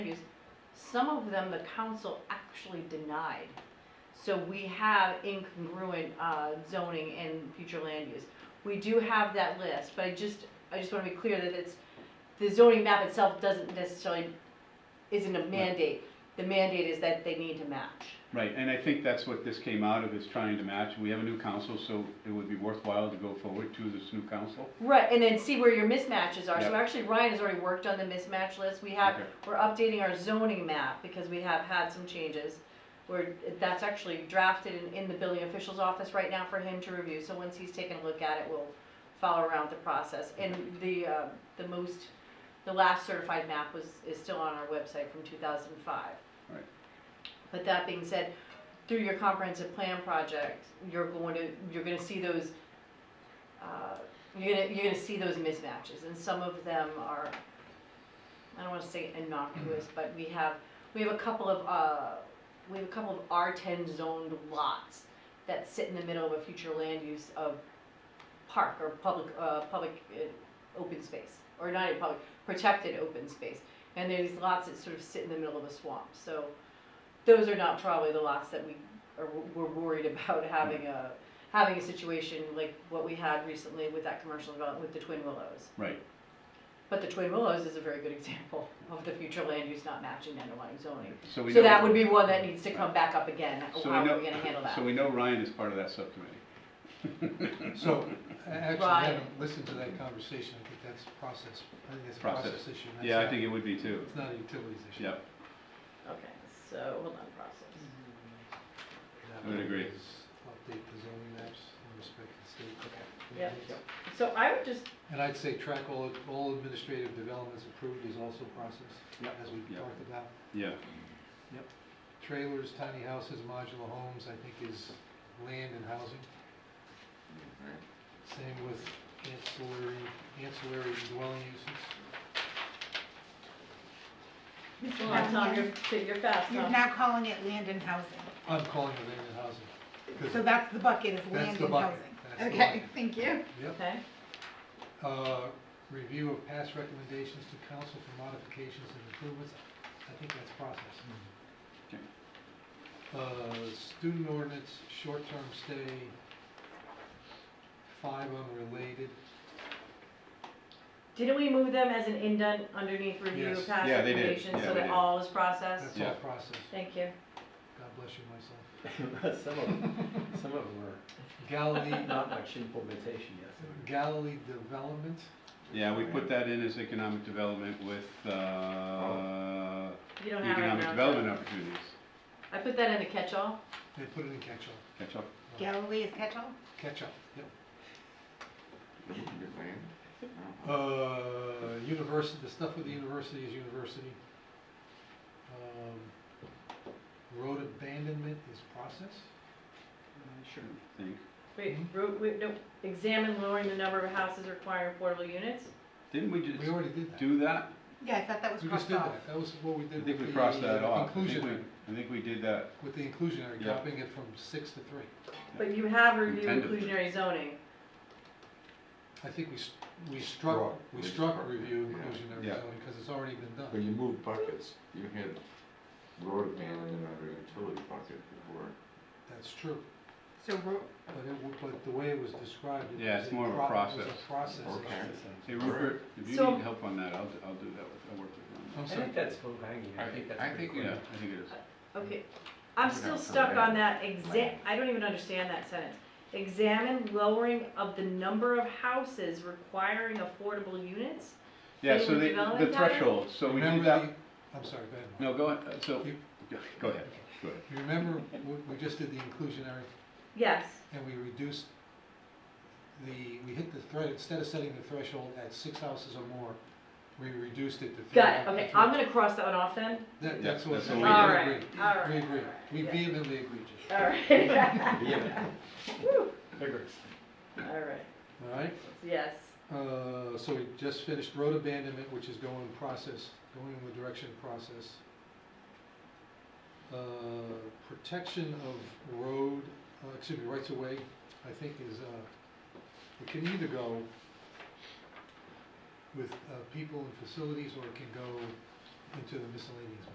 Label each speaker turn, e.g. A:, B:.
A: Some of them, the council actually denied. So we have incongruent uh, zoning and future land use. We do have that list, but I just, I just want to be clear that it's, the zoning map itself doesn't necessarily, isn't a mandate. The mandate is that they need to match.
B: Right, and I think that's what this came out of, is trying to match. We have a new council, so it would be worthwhile to go forward to this new council.
A: Right, and then see where your mismatches are. So
B: Yep.
A: actually, Ryan has already worked on the mismatch list. We have,
B: Okay.
A: we're updating our zoning map because we have had some changes. Where that's actually drafted in, in the building official's office right now for him to review. So once he's taken a look at it, we'll follow around the process. And the, uh, the most, the last certified map was, is still on our website from two thousand and five.
B: Right.
A: But that being said, through your comprehensive plan project, you're going to, you're gonna see those uh, you're gonna you're gonna see those mismatches, and some of them are, I don't want to say innocuous, but we have we have a couple of uh, we have a couple of R ten zoned lots that sit in the middle of a future land use of park or public uh, public uh, open space or not even public protected open space, and there's lots that sort of sit in the middle of a swamp. So those are not probably the lots that we are we're worried about having a having a situation like what we had recently with that commercial development with the Twin Willows.
B: Right,
A: But the Twin Willows is a very good example of the future land use not matching underlying zoning.
B: so we know.
A: So that would be one that needs to come back up again,
B: so
A: how
B: we
A: are we
B: know-
A: gonna handle that?
B: So we know Ryan is part of that subcommittee.
C: So, I actually
A: Right.
C: haven't listened to that conversation, I think that's process, I think that's a
B: Process.
C: process issue. That's
B: Yeah, I
C: not-
B: think it would be too.
C: It's not a utilities issue.
B: Yep,
A: Okay, so, hold on, process.
C: That
B: I would agree.
C: is Update the zoning maps in respect to state.
A: Yep.
C: mandates.
A: Mm-hmm. So I would just,
C: And I'd say track all, all administrative developments approved is also process,
B: Yep.
C: as we
B: Yep.
C: talked about.
B: yeah,
C: Trailers, tiny houses, modular homes, I think is land and housing. Same with ancillary, ancillary dwelling uses.
A: Mr. Lonton, you're, so you're fast,
D: You're
C: Uh-huh.
A: huh?
D: now calling it land and housing.
C: I'm calling it land and housing. 'cause
D: So that's the bucket, is
C: That's
D: land
C: the
D: and
C: bucket.
D: housing.
C: That's the
D: Okay,
C: bucket.
D: thank you.
C: Yep.
A: Okay,
C: Uh, Review of past recommendations to council for modifications and improvements, I think that's process.
B: Okay.
C: Uh, Student ordinance, short-term stay, five unrelated.
A: didn't we move them as an indent underneath review
C: Yes.
A: past
B: Yeah, they did.
A: recommendations,
B: Yeah,
A: so
B: we
A: that
B: did.
A: all is processed?
C: That's
B: Yeah.
C: all process.
A: Thank you.
C: God bless you, myself.
E: some of them, some of them are
C: Galilee,
E: not much implementation yet.
C: Galilee Development,
B: yeah, we put that in as economic development with, uh,
A: You don't have it
B: economic
A: now.
B: development opportunities.
A: I put that in the catch-all.
C: they put it in catch-all.
B: Catch up.
D: Galilee is catch-all?
C: Catch-up, yep.
F: Good man.
C: Uh, university, the stuff with the university is university. Um, Road abandonment is process.
B: Sure. Think,
A: Wait,
B: Mm-hmm.
C: Mhm.
A: ro- wait, no, examine lowering the number of houses requiring affordable units?
B: didn't we
C: We
B: just
C: already did that.
B: do that?
D: Yeah, I thought that was
C: We just
D: crossed
C: did
D: off.
C: that. That was what we
B: I
C: did
B: think we
C: with the
B: crossed that
C: uh,
B: off. I think
C: inclusionary,
B: we- I think we did that,
C: with the inclusionary,
B: Yeah.
C: dropping it from six to three.
A: But you have reviewed
B: Intended.
A: inclusionary zoning.
C: I think we, s- we struck,
F: Struck.
C: we
F: We
C: struck
F: struck it,
C: review
F: yeah.
C: inclusionary
B: Yeah.
C: zoning because it's already been
F: When
C: done.
F: you move buckets, you had road abandonment under a utility bucket before.
C: That's true.
D: So ro-
C: But it, w- but the way it was described. it
B: Yeah,
C: was
B: it's more of a
C: pro- It was
B: process.
C: a process.
F: Okay.
B: hey Rupert, if you
A: So-
B: need help on that, I'll, I'll do that, with- I'll work with you on
C: I'm
E: I
C: sorry.
E: think that's low hanging, I
F: I-
E: think that's
F: I
E: pretty
B: that.
F: think
E: quick.
B: Yeah, I think it is.
A: Okay, I'm
F: We're
A: still
F: not
A: stuck
F: coming
A: on
F: in.
A: that exa, I don't even understand that sentence. Examine lowering of the number of houses requiring affordable units?
B: Yeah,
A: They
B: so
A: were
B: they,
A: developing
B: the
A: that?
B: threshold, so we do
C: Remember
B: that,
C: the- I'm sorry, go ahead.
B: no,
C: Mark.
B: go ahead, uh, so,
C: You-
B: go ahead, go ahead.
C: You remember, we, we just did the inclusionary,
A: Yes,
C: and we reduced the, we hit the thread, instead of setting the threshold at six houses or more, we reduced it to three.
A: got it, okay, I'm gonna cross that one off then,
C: That,
B: Yeah,
C: that's what.
B: that's
C: we
B: what
C: agree.
B: we did.
A: Alright, alright,
C: We agree,
A: alright,
C: we
A: yeah.
C: vehemently agree, Jim.
A: alright.
E: Yeah. Vigorous.
A: Alright,
C: all right?
A: yes,
C: Uh, so we just finished road abandonment, which is going process, going in the direction of process. Uh, protection of road, uh, excuse me, rights of way, I think is, uh, it can either go with, uh, people and facilities, or it can go into the miscellaneous